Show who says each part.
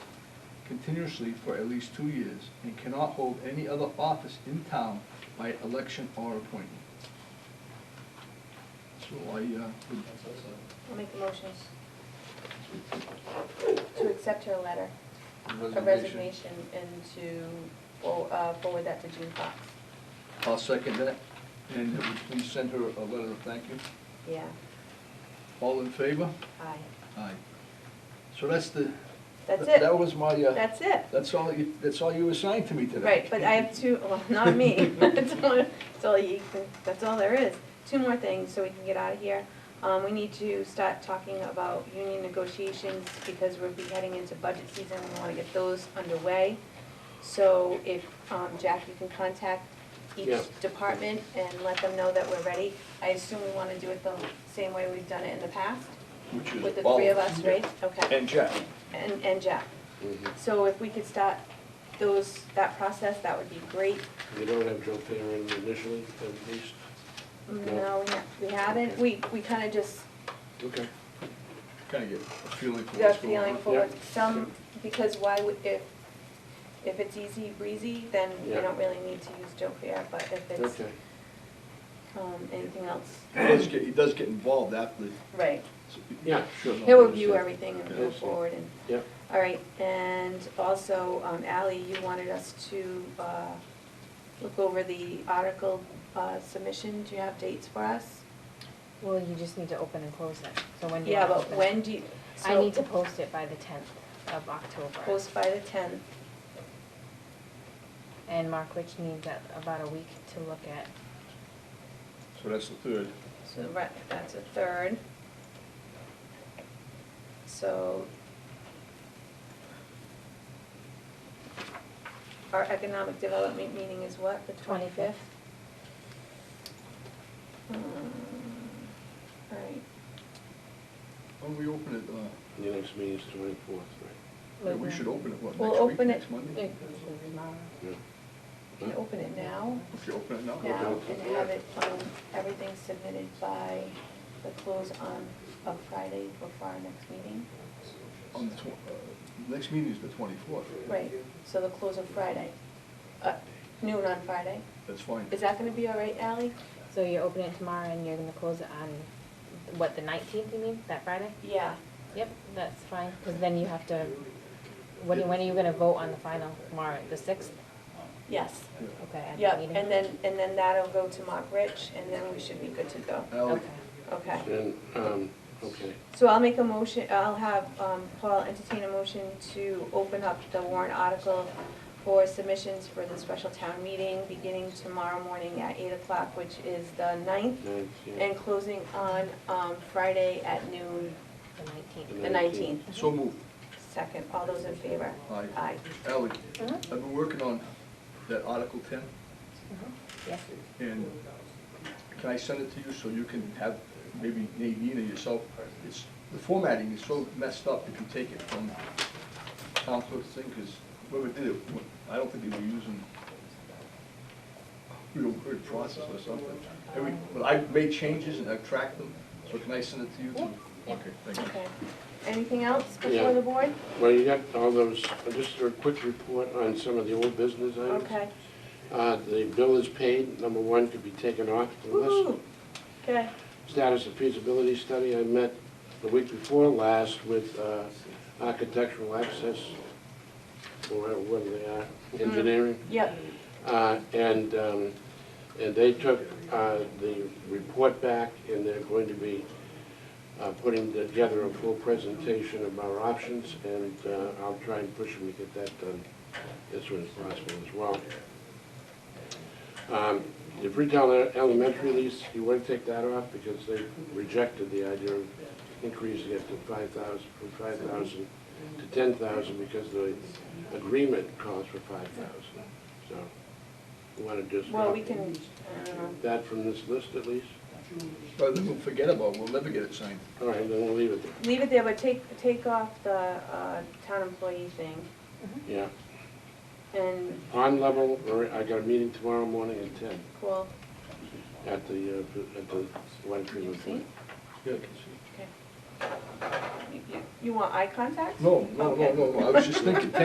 Speaker 1: continuously for at least two years, and cannot hold any other office in town by election or appointment. So I, uh, would-
Speaker 2: I'll make the motions to accept her letter of
Speaker 1: Resignation.
Speaker 2: resignation and to fo- uh, forward that to June Fox.
Speaker 1: I'll second that, and would you please send her a letter of thank you?
Speaker 2: Yeah,
Speaker 1: All in favor?
Speaker 2: aye.
Speaker 1: Aye. So that's the.
Speaker 2: That's
Speaker 1: that-
Speaker 2: it.
Speaker 1: That was my, uh,
Speaker 2: That's it.
Speaker 1: that's all, you- that's all you assigned to me today.
Speaker 2: Right, but I have two, well, not me, that's all, that's all you, that's all there is. Two more things so we can get out of here. Um, we need to start talking about union negotiations because we'll be heading into budget season, we wanna get those underway. So if, um, Jack, you can contact each
Speaker 3: Yeah.
Speaker 2: department and let them know that we're ready. I assume we wanna do it the same way we've done it in the past,
Speaker 1: Which is
Speaker 2: with the
Speaker 1: all-
Speaker 2: three of us, right? Okay,
Speaker 1: And Jack.
Speaker 2: and, and Jack.
Speaker 3: Mhm.
Speaker 2: So if we could start those, that process, that would be great.
Speaker 3: You don't have Joe Thayer in initially, at least?
Speaker 2: No, we ha- we haven't, we, we kind of just
Speaker 3: Okay.
Speaker 1: Kind of get a feeling for
Speaker 2: got a
Speaker 1: what's going
Speaker 2: feeling
Speaker 1: on.
Speaker 2: for
Speaker 3: Yeah.
Speaker 2: some, because why would, if, if it's easy breezy, then we
Speaker 3: Yeah.
Speaker 2: don't really need to use Joe Pierre, but if it's,
Speaker 3: Okay.
Speaker 2: um, anything else,
Speaker 1: He does get, he does get involved after the.
Speaker 2: right.
Speaker 1: so-
Speaker 3: Yeah, sure.
Speaker 1: No,
Speaker 2: He'll
Speaker 1: I
Speaker 2: review
Speaker 1: understand.
Speaker 2: everything and
Speaker 1: Yeah,
Speaker 2: go
Speaker 3: that's fine.
Speaker 2: forward and,
Speaker 3: Yeah.
Speaker 2: all right, and also, um, Ally, you wanted us to, uh, look over the article, uh, submission, do you have dates for us?
Speaker 4: Well, you just need to open and close it, so when do you
Speaker 2: Yeah,
Speaker 4: want to
Speaker 2: but
Speaker 4: open it?
Speaker 2: when do you?
Speaker 4: I
Speaker 2: so-
Speaker 4: need to post it by the tenth of October.
Speaker 2: Post by the tenth,
Speaker 4: And Mark Rich needs a- about a week to look at.
Speaker 1: So that's the third.
Speaker 2: so right, that's a third. So. Our economic development meeting is what, the twenty-fifth? Alright,
Speaker 1: When we open it, uh,
Speaker 3: The next meeting is twenty-fourth, right?
Speaker 1: yeah, we should open it, what,
Speaker 2: We'll
Speaker 1: next week,
Speaker 2: open it-
Speaker 1: next Monday?
Speaker 4: It-
Speaker 3: Yeah.
Speaker 2: can you open it now?
Speaker 1: If you open it now.
Speaker 2: Now, and have it, um, everything submitted by the close on, of Friday before our next meeting?
Speaker 1: On the tw- uh, next meeting is the twenty-fourth.
Speaker 2: Right, so the close of Friday, uh, noon on Friday.
Speaker 1: That's fine.
Speaker 2: Is that gonna be all right, Ally?
Speaker 4: So you open it tomorrow and you're gonna close it on, what, the nineteenth, you mean, that Friday?
Speaker 2: Yeah,
Speaker 4: Yep, that's fine, because then you have to, when, when are you gonna vote on the final tomorrow, the sixth?
Speaker 2: yes,
Speaker 1: Yeah.
Speaker 4: Okay, at the
Speaker 2: yep,
Speaker 4: meeting?
Speaker 2: and then, and then that'll go to Mark Rich, and then we should be good to go,
Speaker 1: Ally,
Speaker 4: Okay.
Speaker 2: okay.
Speaker 3: And, um, okay,
Speaker 2: So I'll make a motion, I'll have, um, Paul entertain a motion to open up the warrant article for submissions for the special town meeting, beginning tomorrow morning at eight o'clock, which is the ninth,
Speaker 3: ninth, yeah.
Speaker 2: and closing on, um, Friday at noon,
Speaker 4: The nineteenth.
Speaker 2: the nineteenth.
Speaker 1: so moved.
Speaker 2: Second, all those in favor?
Speaker 1: Aye.
Speaker 2: Aye.
Speaker 1: Ally,
Speaker 4: Uh-huh.
Speaker 1: I've been working on that Article ten,
Speaker 4: Mm-hmm. Yes,
Speaker 1: and can I send it to you so you can have, maybe Nadine or yourself? It's, the formatting is so messed up if you take it from town clerk's thing, because whoever did it, I don't think they were using real word process or something. Every, but I made changes and I've tracked them, so can I send it to you too?
Speaker 4: Yeah.
Speaker 1: Okay, thank you.
Speaker 2: Okay. Anything else
Speaker 3: Yeah.
Speaker 2: before the board?
Speaker 3: Well, you got all those, uh, just a quick report on some of the old business items.
Speaker 2: Okay.
Speaker 3: Uh, the bill is paid, number one could be taken off the list.
Speaker 2: Woo-hoo. Okay,
Speaker 3: Status of feasibility study, I met the week before last with, uh, architectural access, or whatever they are,
Speaker 2: Mm-hmm.
Speaker 3: engineering.
Speaker 2: yep,
Speaker 3: Uh, And, um, and they took uh, the report back, and they're going to be uh, putting together a full presentation of our options, and uh, I'll try and push them to get that done as soon as possible as well. Um, The Freetown Elementary lease, you want to take that off, because they rejected the idea of increasing it to five thousand, from five thousand to ten thousand, because the agreement calls for five thousand, so we want to just
Speaker 2: well,
Speaker 3: drop
Speaker 2: we can, uh, I don't know.
Speaker 3: that from this list at least.
Speaker 1: But then we'll forget about, it. we'll never get it signed.
Speaker 3: All right, then we'll leave it there,
Speaker 2: leave it there, but take, take off the uh, town employee thing.
Speaker 3: yeah.
Speaker 2: And,
Speaker 3: Pond level, all right, I got a meeting tomorrow morning at ten
Speaker 2: cool,
Speaker 3: at the, uh, at the Water
Speaker 2: you
Speaker 3: Treatment
Speaker 2: see?
Speaker 3: Plant.
Speaker 1: Yeah, I can see.
Speaker 2: You- You you want eye contact?
Speaker 1: No, no, no,
Speaker 2: Okay.
Speaker 1: no, no, I was just thinking,